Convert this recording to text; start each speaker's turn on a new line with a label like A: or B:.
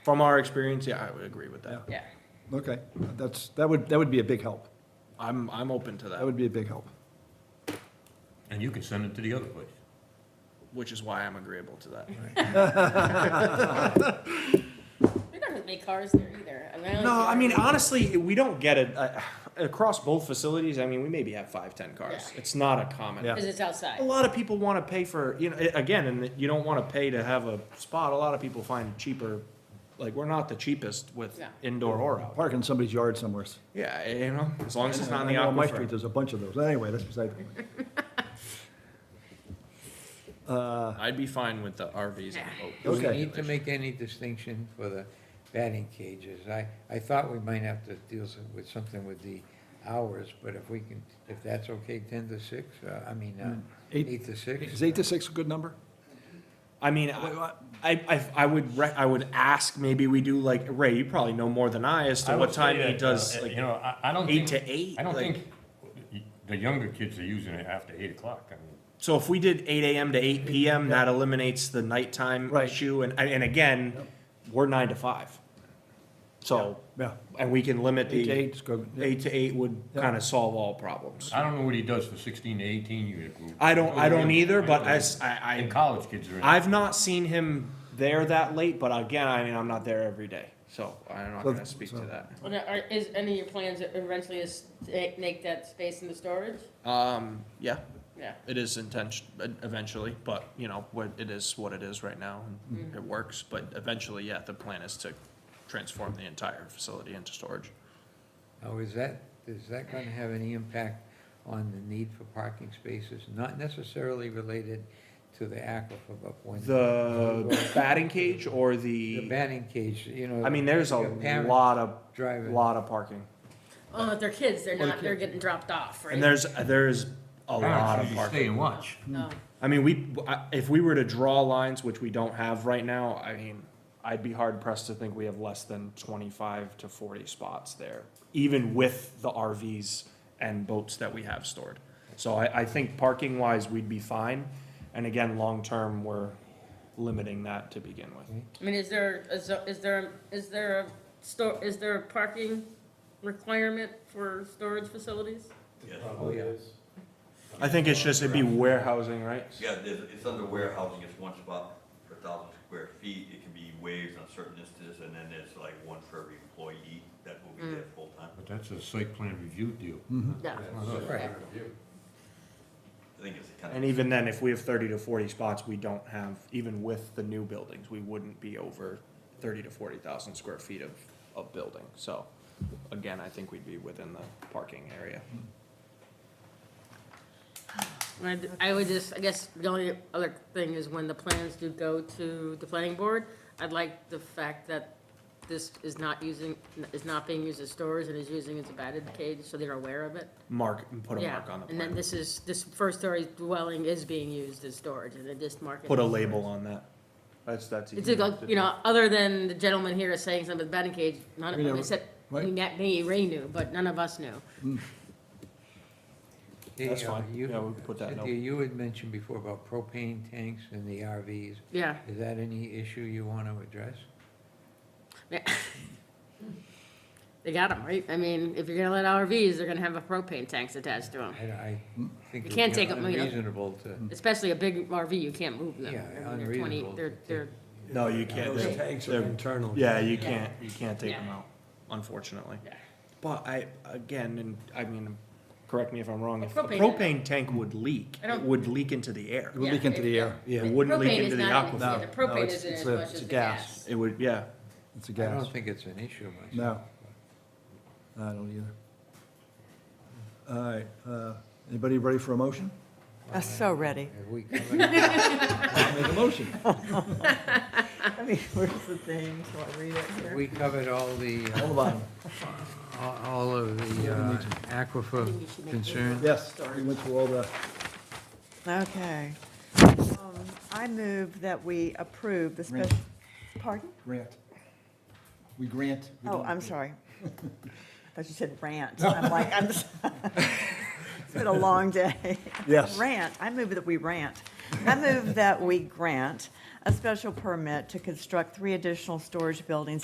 A: From our experience, yeah, I would agree with that.
B: Yeah.
C: Okay, that's, that would, that would be a big help.
A: I'm, I'm open to
C: That
A: that,
C: would be a big help.
D: And you can send it to the other place.
A: which is why I'm agreeable to that.
B: We're not gonna make cars there either. I mean, don't
A: No,
B: care.
A: I mean honestly, we don't get it uh, across both facilities. I mean, we maybe have five, ten cars.
B: Yeah.
A: It's not a common.
C: Yeah.
B: Cause it's
A: A
B: outside.
A: lot of people want to pay for you know a- again, and you don't want to pay to have a spot. A lot of people find cheaper. Like we're not the cheapest with
B: No.
A: indoor or outdoor.
C: Park in somebody's yard somewhere.
A: Yeah, you know, as long as it's not in the
C: I know On my
A: aquifer.
C: street, there's a bunch of those. Anyway, that's beside the point. Uh,
A: I'd be fine with the RVs and boats.
E: Do we
C: Okay.
E: need to make any distinction for the batting cages? I, I thought we might have to deal s- with something with the hours, but if we can, if that's okay, ten to six, uh, I mean, uh,
C: Eight-
E: eight to six?
C: Is eight to six a good number?
A: I mean, I, I, I- I would rec- I would ask maybe we do like Ray. You probably know more than I as to
D: I
A: what
D: would
A: time
D: say
A: he
D: that,
A: does.
D: uh,
A: like,
D: You know, I, I don't
A: eight
D: think.
A: to eight,
D: I don't
A: like-
D: think the younger kids are using it after eight o'clock. I mean,
A: So if we did eight AM to eight PM, that eliminates the nighttime
C: Right.
A: issue, and, and again, we're nine to five. So,
C: Yeah,
A: and we can limit
C: eight to
A: the,
C: eight is good. Yeah.
A: eight to eight would
C: Yeah.
A: kind of solve all problems.
D: I don't know what he does for sixteen to eighteen year group.
A: I don't, I don't either, but
D: I
A: as, I,
D: And college kids are in.
A: I, I've not seen him there that late, but again, I mean, I'm not there every day, so I'm not
C: So-
A: gonna speak
C: so-
A: to
B: Well, now, Are, is any of your plans eventually is to make that space into storage?
A: that. Um, yeah,
B: Yeah.
A: it is intention, eventually, but, you know, what, it is what it is right now, and it works, but eventually, yeah, the plan is to transform the entire facility into storage.
E: Now, is that, is that gonna have any impact on the need for parking spaces? Not necessarily related to the aquifer, but when.
A: The batting cage or
E: The
A: the,
E: batting cage, you know.
A: I mean, there's a
E: your parents
A: lot of,
E: Driving.
A: lot of parking.
B: Oh, if they're kids, they're not, they're getting dropped off, right?
A: And there's, there's a lot of
D: Stay
A: parking.
D: and watch.
B: No.
A: I mean, we, I- if we were to draw lines, which we don't have right now, I mean, I'd be hard pressed to think we have less than twenty-five to forty spots there, even with the RVs and boats that we have stored. So I, I think parking wise, we'd be fine. And again, long-term, we're limiting that to begin with.
B: I mean, is there, is, there- is there, is there a store, is there a parking requirement for storage facilities?
E: Probably is.
A: I think it's just, it'd be warehousing, right?
F: Yeah, there's, it's under warehousing, it's one spot per thousand square feet, it can be waived on certain instances, and then there's like one for every employee that will be there full time.
D: But that's a site plan review deal.
B: No.
E: Right.
F: I think it's a kind of.
A: And even then, if we have thirty to forty spots, we don't have, even with the new buildings, we wouldn't be over thirty to forty thousand square feet of, of building, so. Again, I think we'd be within the parking area.
B: I'd- I would just, I guess the only other thing is when the plans do go to the planning board, I'd like the fact that this is not using, is not being used as storage and is using as a batted cage, so they're aware of it.
A: Mark, put a
B: Yeah,
A: mark on the
B: And then
A: plan,
B: this is, this first story dwelling is being used as storage and they just mark it.
A: put a label on that. That's, that's.
B: It's
A: easy
B: like,
A: to
B: you
A: do.
B: know, other than the gentleman here is saying something about batting cage, none
C: We
B: of,
C: never-
B: except,
C: right.
B: me, Ray knew, but none of us knew.
E: Hey,
A: That's
E: uh,
A: fine.
E: you-
A: Yeah, we'll put that
E: Cynthia, you had mentioned before about propane tanks and the RVs.
B: Yeah.
E: Is that any issue you want to address?
B: They got them, right? I mean, if you're gonna let RVs, they're gonna have a propane tanks attached to them.
E: I, I
A: Mm.
E: think
B: You
E: it
B: can't
E: would be
B: take 'em, you know.
E: unreasonable to,
B: Especially a big RV, you can't move them.
E: Yeah,
B: I mean, They're twenty,
E: unreasonable
B: they're,
E: to
B: they're,
A: No, you can't,
B: Those
A: they're-
G: tanks are
A: they're-
G: internal.
A: Yeah, you can't, you can't take
B: Yeah.
A: them out, unfortunately.
B: Yeah.
A: But I, again, and I mean, correct me if I'm wrong, if the
B: Propane-
A: propane tank would leak,
B: I
A: it
B: don't-
A: would leak into the air.
C: It would leak
B: Yeah,
C: into the
B: it-
C: air.
G: Yeah.
A: It wouldn't leak
B: Propane
A: into
B: is
A: the
B: not in-
A: aquifer.
B: yeah,
C: No,
B: the
C: no,
B: propane
C: it's-
B: isn't
C: it's
B: as
C: a-
B: much
C: it's
B: as
C: a
B: the
C: gas.
B: gas.
A: It would, yeah.
C: It's a
E: I
C: gas.
E: don't think it's an issue myself.
C: No. I don't either. All right, uh, anybody ready for a motion?
H: I'm so ready.
E: Have we covered?
C: Make a motion.
H: I mean, where's the thing? So I read it
E: have
H: here.
E: we covered all the, uh,
C: Hold on.
E: all all of the uh, aquifer concerns?
C: Yes, we went through all the,
H: Okay. Um, I move that we approve the
C: Grant.
H: special, pardon?
C: grant. We grant. we
H: Oh,
C: don't-
H: I'm sorry. I thought you said rant. I'm like, I'm, s- it's been a long day.
C: Yes.
H: Rant, I move that we rant. I move that we grant a special permit to construct three additional storage buildings